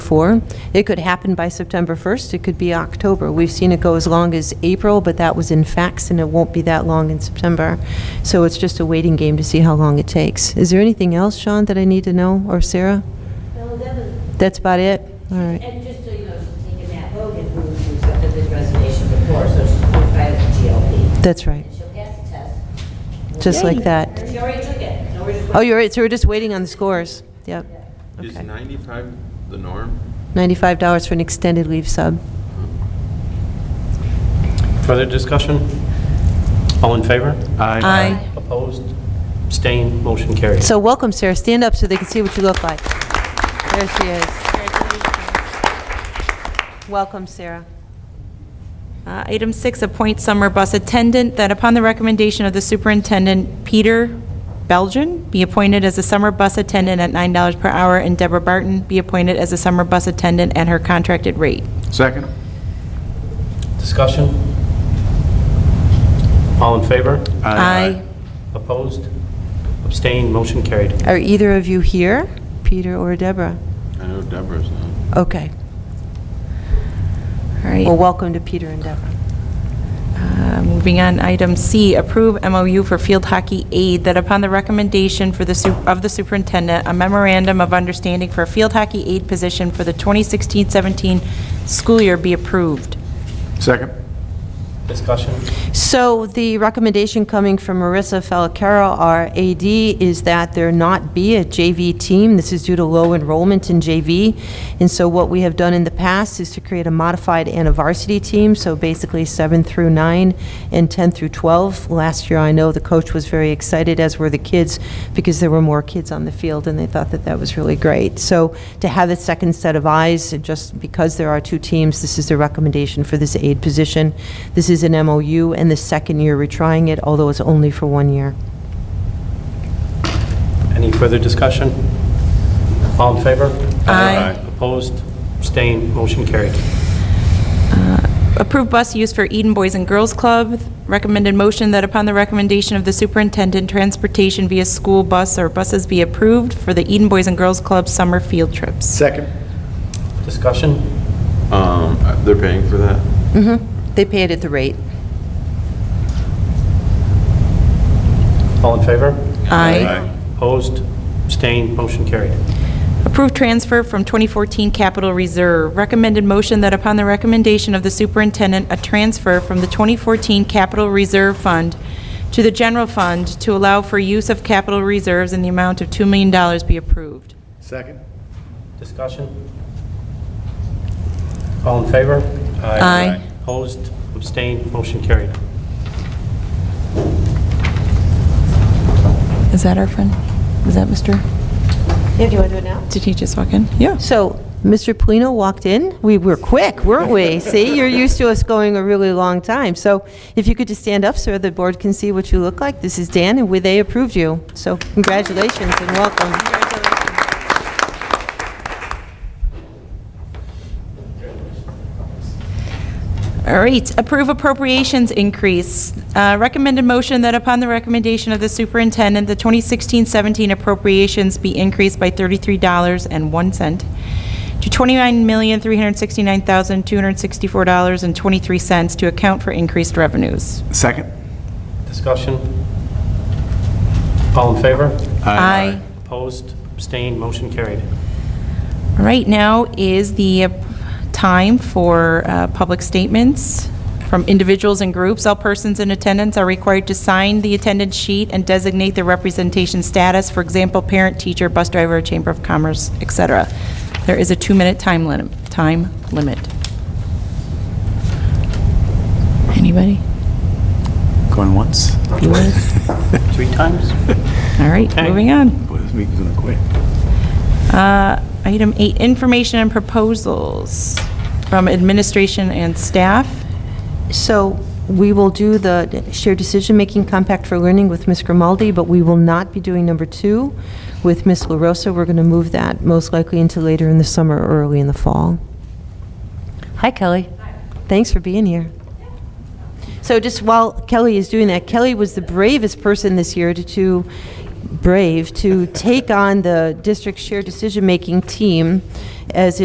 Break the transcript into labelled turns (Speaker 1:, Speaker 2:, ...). Speaker 1: before. It could happen by September 1st, it could be October. We've seen it go as long as April, but that was in Faxon, it won't be that long in September. So it's just a waiting game to see how long it takes. Is there anything else, Sean, that I need to know, or Sarah?
Speaker 2: Well, that was,
Speaker 1: That's about it? All right.
Speaker 2: and just so you know, she's taken that Hogan, who who accepted this resignation before, so she's qualified as a GLP.
Speaker 1: That's right,
Speaker 2: And she'll pass the test.
Speaker 1: just like that.
Speaker 2: She already took it, so we're just.
Speaker 1: Oh, you're right, so we're just waiting on the scores. Yep.
Speaker 3: Is
Speaker 1: Okay.
Speaker 3: 95 the norm?
Speaker 1: $95 for an extended leave sub.
Speaker 4: Further discussion? All in favor?
Speaker 1: Aye.
Speaker 4: Opposed? Abstained? Motion carried.
Speaker 1: So welcome, Sarah. Stand up so they can see what you look like. There she is. Welcome, Sarah.
Speaker 5: Uh, Item six, appoint summer bus attendant, that upon the recommendation of the superintendent, Peter Belgian be appointed as a summer bus attendant at $9 per hour, and Deborah Barton be appointed as a summer bus attendant at her contracted rate.
Speaker 6: Second?
Speaker 4: Discussion? All in favor?
Speaker 5: Aye.
Speaker 4: Opposed? Abstained? Motion carried.
Speaker 1: Are either of you here, Peter or Deborah?
Speaker 3: I know Deborah's not.
Speaker 1: Okay.
Speaker 5: All right.
Speaker 1: Well, welcome to Peter and Deborah.
Speaker 5: Uh, Moving on, item C, approve MOU for field hockey aid, that upon the recommendation for the, su- of the superintendent, a memorandum of understanding for a field hockey aid position for the 2016-17 school year be approved.
Speaker 6: Second?
Speaker 4: Discussion?
Speaker 1: So the recommendation coming from Marissa Falcaro, our AD, is that there not be a JV team. This is due to low enrollment in JV. And so what we have done in the past is to create a modified and a varsity team, so basically 7 through 9 and 10 through 12. Last year, I know the coach was very excited, as were the kids, because there were more kids on the field, and they thought that that was really great. So to have a second set of eyes, and just because there are two teams, this is the recommendation for this aid position. This is an MOU, and the second year we're trying it, although it's only for one year.
Speaker 4: Any further discussion? All in favor?
Speaker 5: Aye.
Speaker 4: Opposed? Abstained? Motion carried.
Speaker 5: Approve bus use for Eden Boys and Girls Club. Recommended motion that upon the recommendation of the superintendent, transportation via school bus or buses be approved for the Eden Boys and Girls Club summer field trips.
Speaker 6: Second?
Speaker 4: Discussion?
Speaker 3: Um, uh, They're paying for that?
Speaker 1: They pay it at the rate.
Speaker 4: All in favor?
Speaker 5: Aye.
Speaker 4: Opposed? Abstained? Motion carried.
Speaker 5: Approve transfer from 2014 capital reserve. Recommended motion that upon the recommendation of the superintendent, a transfer from the 2014 capital reserve fund to the general fund to allow for use of capital reserves in the amount of $2 million be approved.
Speaker 6: Second?
Speaker 4: Discussion? All in favor?
Speaker 5: Aye. Aye.
Speaker 4: Opposed? Abstained? Motion carried.
Speaker 5: Is that our friend? Is that Mr.?
Speaker 1: Yeah, do you want to do it now?
Speaker 5: Did he just walk in? Yeah.
Speaker 1: So, Mr. Polino walked in. We were quick, weren't we? See, you're used to us going a really long time. So, if you could just stand up, sir, the board can see what you look like. This is Dan, and we- they approved you. So, congratulations and welcome.
Speaker 5: All right, approve appropriations increase. Uh, Recommended motion that upon the recommendation of the superintendent, the 2016-17 appropriations be increased by $33.01 to $29,369,264.23 to account for increased revenues.
Speaker 6: Second?
Speaker 4: Discussion? All in favor?
Speaker 5: Aye.
Speaker 4: Opposed? Abstained? Motion carried.
Speaker 5: All right, now is the uh, time for uh, public statements from individuals and groups. All persons in attendance are required to sign the attendance sheet and designate their representation status, for example, parent, teacher, bus driver, chamber of commerce, et cetera. There is a two-minute time limit, time limit. Anybody?
Speaker 6: Going once?
Speaker 4: Three times?
Speaker 5: All right,
Speaker 4: Okay.
Speaker 5: moving on.
Speaker 6: Boy, this meeting's gonna quit.
Speaker 5: Uh, Item eight, information and proposals from administration and staff.
Speaker 1: So we will do the shared decision-making compact for learning with Ms. Grimaldi, but we will not be doing number two with Ms. LaRosa. We're going to move that most likely into later in the summer or early in the fall. Hi, Kelly. Thanks for being here. So just while Kelly is doing that, Kelly was the bravest person this year to, to brave, to take on the district shared decision-making team as